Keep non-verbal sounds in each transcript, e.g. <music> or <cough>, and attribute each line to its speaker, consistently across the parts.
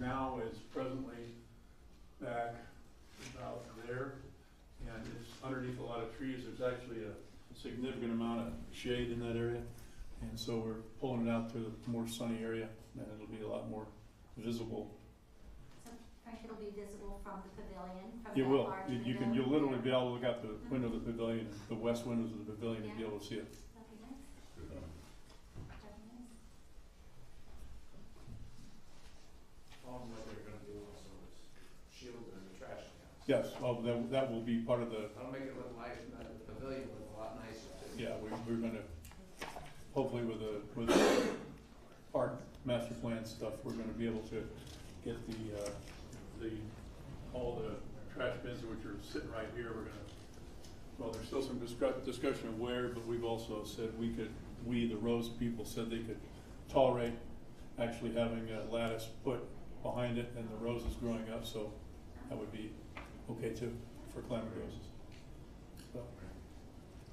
Speaker 1: now is presently back about there, and it's underneath a lot of trees, there's actually a significant amount of shade in that area, and so we're pulling it out to a more sunny area, and it'll be a lot more visible.
Speaker 2: So Frank, it'll be visible from the pavilion, from
Speaker 1: You
Speaker 2: that
Speaker 1: will,
Speaker 2: large
Speaker 1: You-
Speaker 2: pavilion?
Speaker 1: you can, you'll literally be able to look out the window of the pavilion, the west windows of the pavilion, and be able to see it.
Speaker 2: That'd be nice. That'd be nice.
Speaker 3: All that they're gonna do also is shield the trash cans.
Speaker 1: Yes, well, that, that will be part of the,
Speaker 3: That'll make it look nice, and the pavilion look a lot nicer too.
Speaker 4: <laughs>
Speaker 1: yeah, we, we're gonna, hopefully with the, with the park master plan stuff, we're gonna be able to get the, uh, the, all the trash bins which are sitting right here, we're gonna, well, there's still some discuss, discussion of where, but we've also said we could, we, the Rose people, said they could tolerate actually having a lattice put
Speaker 2: Um,
Speaker 1: behind it and the roses growing up, so that would be okay too, for climbing roses. So.
Speaker 2: You-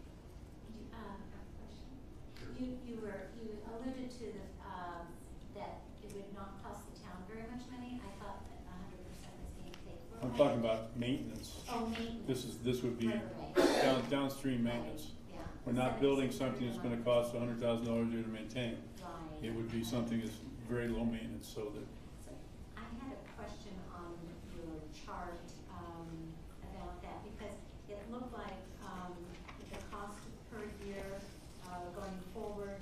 Speaker 2: Um, I have a question. You, you were, you alluded to the, um, that it would not cost the town very much money. I thought that a hundred percent was being paid for.
Speaker 1: I'm
Speaker 2: by-
Speaker 1: talking about maintenance.
Speaker 2: Oh, maintenance.
Speaker 1: This is, this would be
Speaker 2: Right, right, right.
Speaker 1: down, downstream maintenance.
Speaker 2: Yeah.
Speaker 1: We're not
Speaker 2: Seven-
Speaker 1: building
Speaker 2: six
Speaker 1: something that's gonna
Speaker 2: hundred
Speaker 1: cost a hundred thousand dollars a year to maintain.
Speaker 2: a month. Right.
Speaker 1: It would be something that's very low maintenance, so that,
Speaker 2: So I had a question on your chart, um, about that, because it looked like, um, the cost per year, uh, going forward,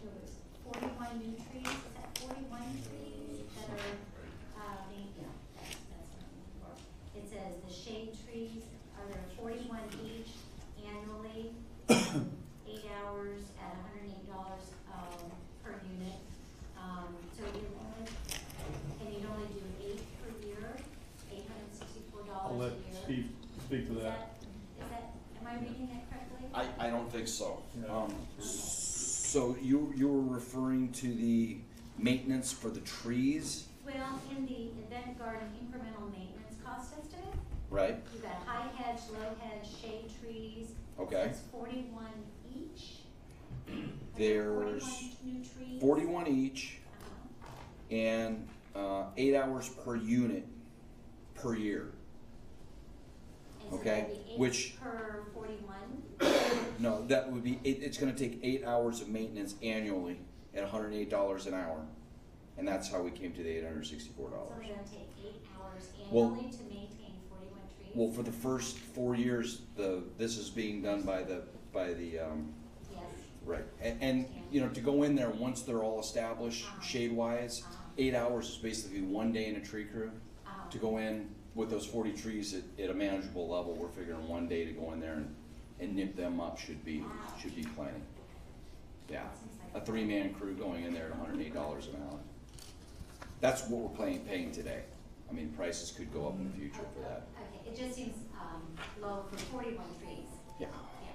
Speaker 2: there was forty-one new trees, is that forty-one trees that are, uh, being, yeah, that's, that's what I'm looking for. It says the shade trees, are there forty-one each annually, <coughs> eight hours at hundred and eight dollars, um, per unit. Um, so you only, and you'd only do eight per year, eight hundred and sixty-four
Speaker 1: I'll
Speaker 2: dollars
Speaker 1: let
Speaker 2: a year.
Speaker 1: Steve speak to
Speaker 2: Is
Speaker 1: that.
Speaker 2: that, is that, am I reading that correctly?
Speaker 5: I, I don't think so.
Speaker 1: No.
Speaker 5: Um, s- so you, you were referring to the maintenance for the trees,
Speaker 2: Well, in the event garden incremental maintenance cost estimate,
Speaker 5: right?
Speaker 2: you've got high hedge, low hedge, shade trees.
Speaker 5: Okay.
Speaker 2: It's forty-one each. Are
Speaker 5: There's
Speaker 2: Forty-one new trees.
Speaker 5: Forty-one each
Speaker 2: Uh-huh.
Speaker 5: and, uh, eight hours per unit per year.
Speaker 2: And so
Speaker 5: Okay,
Speaker 2: that'd be eight
Speaker 5: which-
Speaker 2: Per
Speaker 5: <coughs>
Speaker 2: forty-one,
Speaker 5: No, that would be, it, it's gonna take eight hours of maintenance annually at hundred and eight dollars an hour. And that's how we came to the eight hundred and sixty-four
Speaker 2: so
Speaker 5: dollars.
Speaker 2: they're gonna take eight hours
Speaker 5: Well-
Speaker 2: annually to maintain forty-one trees?
Speaker 5: Well, for the first four years, the, this is being done by the, by the, um,
Speaker 2: Yes,
Speaker 5: Right, and, and, you know, to go in there, once they're all established, shade wise, eight hours is basically one day in a tree crew.
Speaker 2: um,
Speaker 5: To go in with those forty trees at, at a manageable level, we're figuring one day to go in there and, and nip them up should be, should be plenty. Yeah, a three-man crew going in there at hundred and eight dollars an hour. That's what we're playing, paying today. I mean, prices could go up in the future for that.
Speaker 2: Okay, it just seems, um, low for forty-one trees,
Speaker 5: Yeah.
Speaker 2: yeah.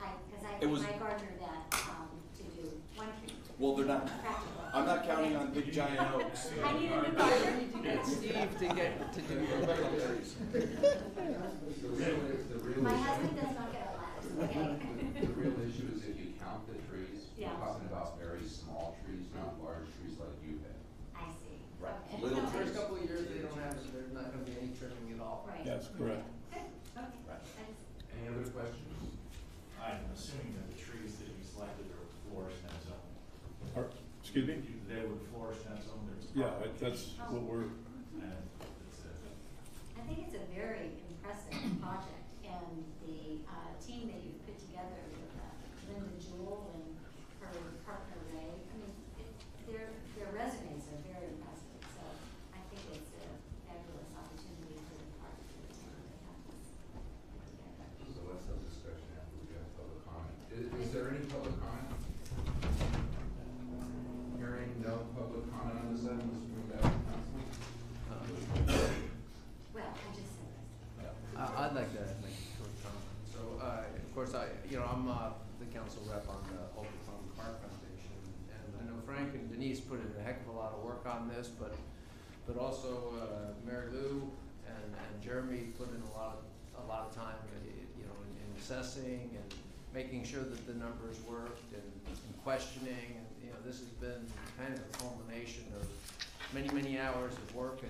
Speaker 2: I, cause I,
Speaker 5: It was-
Speaker 2: I gardener that, um, to do one tree.
Speaker 5: Well, they're not-
Speaker 2: Practical.
Speaker 5: I'm not counting on big giant oaks.
Speaker 2: I need a new gardener.
Speaker 4: Steve to get to do the regulars.
Speaker 6: The real, the real
Speaker 2: My
Speaker 6: issue,
Speaker 2: husband does not get a laugh,
Speaker 5: <laughs>
Speaker 2: okay?
Speaker 6: the real issue is if you count the trees, we're
Speaker 2: Yeah.
Speaker 6: talking about very small trees, not large trees like you have.
Speaker 2: I see.
Speaker 5: Right.
Speaker 2: Okay.
Speaker 5: Little
Speaker 2: Okay.
Speaker 5: trees.
Speaker 4: First couple of years, they don't have, there's not gonna be any trimming at all.
Speaker 2: Right.
Speaker 1: Yes, correct.
Speaker 2: Good, okay,
Speaker 5: Right.
Speaker 2: that's,
Speaker 6: Any other questions?
Speaker 7: I'm assuming that the trees that you selected are florist and zone.
Speaker 1: Or- Excuse me?
Speaker 7: They would flourish and zone their.
Speaker 1: Yeah, it- that's what we're,
Speaker 7: And it's
Speaker 2: I
Speaker 7: a-
Speaker 2: think it's a very impressive project and the, uh, team that you've put together with uh, Linda Jewell and her partner Ray, I mean, it, their, their resumes are very impressive, so I think it's a fabulous opportunity for the park to have this together.
Speaker 6: So let's have discussion after we have public comment. Is, is there any public comment? Hearing no public comment on this item, let's move back to council.
Speaker 2: Well, I just said this.
Speaker 4: I, I'd like to make a short comment. So, uh, of course, I, you know, I'm, uh, the council rep on the Old Plum Park Foundation. And I know Frank and Denise put in a heck of a lot of work on this, but, but also, uh, Mary Lou and, and Jeremy put in a lot, of a lot of time, uh, you know, in- in assessing and making sure that the numbers worked and questioning. And, you know, this has been kind of a culmination of, many, many hours of work